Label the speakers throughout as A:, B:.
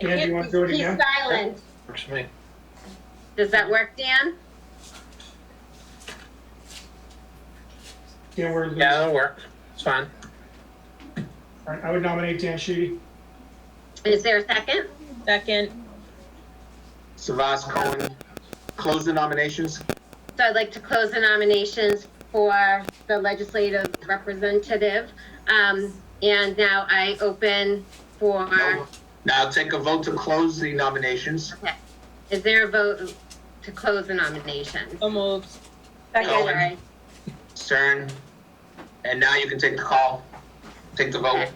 A: Dan, do you want to do it again?
B: He's silent.
C: Works for me.
B: Does that work, Dan?
A: Dan, we're, losing-
C: Yeah,
A: All
C: that'll work. It's fine.
A: right, I would nominate Dan Sheedy.
B: Is there a second?
D: Second,
E: Savas Cohen, close the nominations.
B: So I'd like to close the nominations for the legislative representative. Um, and now I open for,
E: No. Now take a vote to close the nominations.
B: is there a vote to close the nominations?
D: so moved.
E: Cohen.
B: Sorry.
E: Stern, and now you can take the call, take the vote.
B: Okay.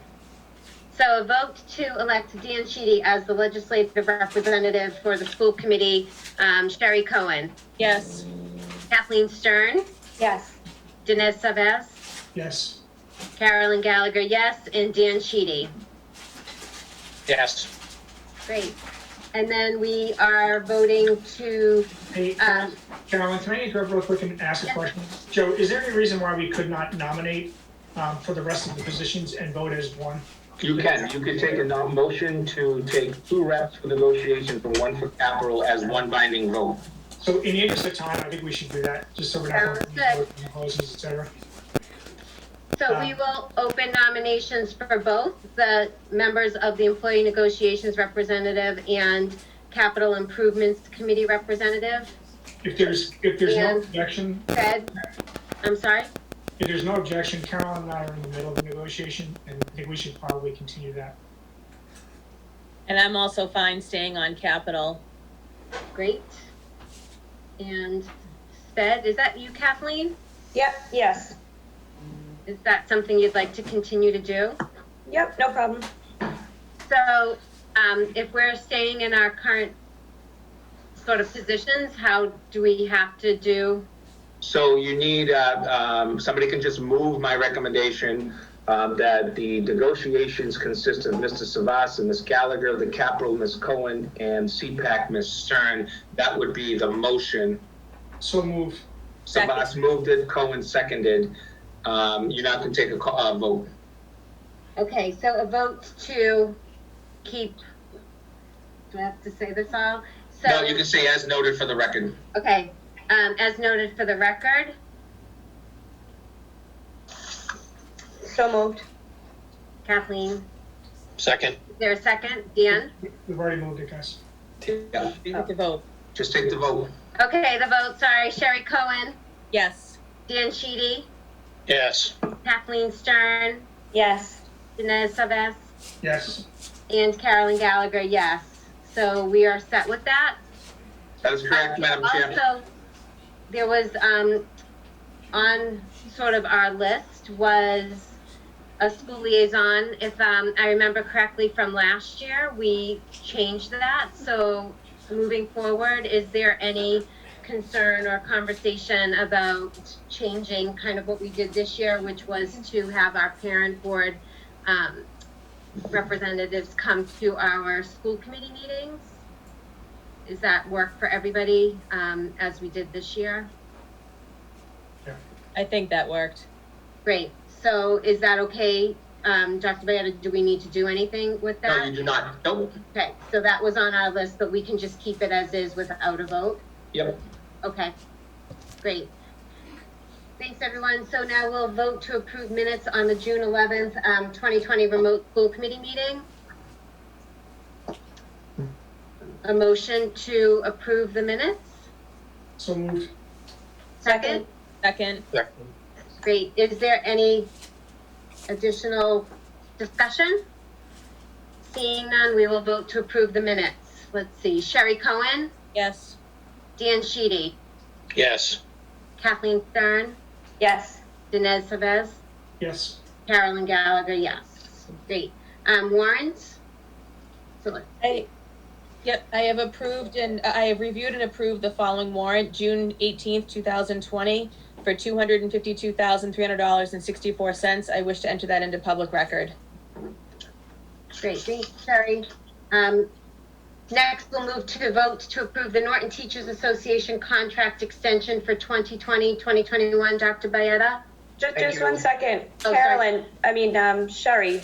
B: So a vote to elect Dan Sheedy as the legislative representative for the school committee. Um, Sherry Cohen,
D: Yes,
B: Kathleen Stern,
F: yes,
B: Dinesh Savas,
A: Yes.
B: Carolyn Gallagher, yes, and Dan Sheedy.
C: Yes.
B: Great. And then we are voting to,
A: Hey,
B: um,
A: Carolyn, can I interrupt real quick and ask a
B: Yeah.
A: question? Joe, is there any reason why we could not nominate um, for the rest of the positions and vote as one?
E: You can, you can take a nom- motion to take two reps for negotiations and one for capital as one binding vote.
A: So in the interest of time, I think we should do that, just so we're not.
B: Sounds good.
A: Closes, et cetera.
B: so we will open nominations for both the members of the Employee Negotiations Representative and Capital Improvements Committee Representative.
A: If there's, if there's no
B: And-
A: objection,
B: Fred, I'm sorry?
A: if there's no objection, Carolyn and I are in the middle of the negotiation, and I think we should probably continue that.
D: and I'm also fine staying on capital.
B: Great. And Fed, is that you, Kathleen?
F: yep, yes,
B: Is that something you'd like to continue to do?
F: yep, no problem.
B: So, um, if we're staying in our current sort of positions, how do we have to do?
E: So you need, uh, um, somebody can just move my recommendation um, that the negotiations consist of Mr. Savas and Ms. Gallagher, the capital Ms. Cohen, and CPAC Ms. Stern. That would be the motion.
A: So move.
E: Savas moved it, Cohen seconded. Um, You're not going to take a ca- uh, vote.
B: Okay, so a vote to keep, do I have to say this all? So-
E: No, you can say as noted for the record.
B: Okay, um, as noted for the record,
F: So moved.
B: Kathleen,
C: Second.
B: is there a second? Dan?
A: We've already moved it, guys.
E: Yeah,
D: You get to vote.
E: just take the vote.
B: Okay, the vote, sorry, Sherry Cohen,
D: Yes,
B: Dan Sheedy,
C: Yes.
B: Kathleen Stern,
F: Yes,
B: Dinesh Savas,
A: Yes.
B: and Carolyn Gallagher, yes. So we are set with that.
E: That is correct, Madam Chair.
B: Also, there was, um, on sort of our list was a school liaison. If, um, I remember correctly from last year, we changed that. So moving forward, is there any concern or conversation about changing kind of what we did this year, which was to have our parent board, um, representatives come to our school committee meetings? Does that work for everybody, um, as we did this year?
D: I think that worked.
B: Great, so is that okay, um, Dr. Bayetta, do we need to do anything with
E: No, you
B: that?
E: do not. Nope.
B: Okay, so that was on our list, but we can just keep it as is without a vote?
E: Yep.
B: Okay, great. Thanks, everyone, so now we'll vote to approve minutes on the June eleventh, um, twenty twenty remote school committee meeting. A motion to approve the minutes,
A: So moved.
B: second?
D: Second,
B: Great, is there any additional discussion? Seeing none, we will vote to approve the minutes. Let's see, Sherry Cohen,
D: yes,
B: Dan Sheedy,
C: Yes.
B: Kathleen Stern,
F: yes,
B: Dinesh Savas,
A: Yes.
B: Carolyn Gallagher, yes. Great, um, warrants? So let's
D: I, yep, I have approved and, I have reviewed and approved the following warrant, June eighteenth, two thousand twenty, for two hundred and fifty-two thousand, three hundred dollars and sixty-four cents. I wish to enter that into public record.
B: Great, thanks, Sherry. Um, Next, we'll move to vote to approve the Norton Teachers Association contract extension for 2020, 2021. Dr. Bayetta?
F: just,
E: Thank
F: just
E: you.
F: one second.
B: Oh, sorry.
F: Carolyn, I mean, um, Sherry,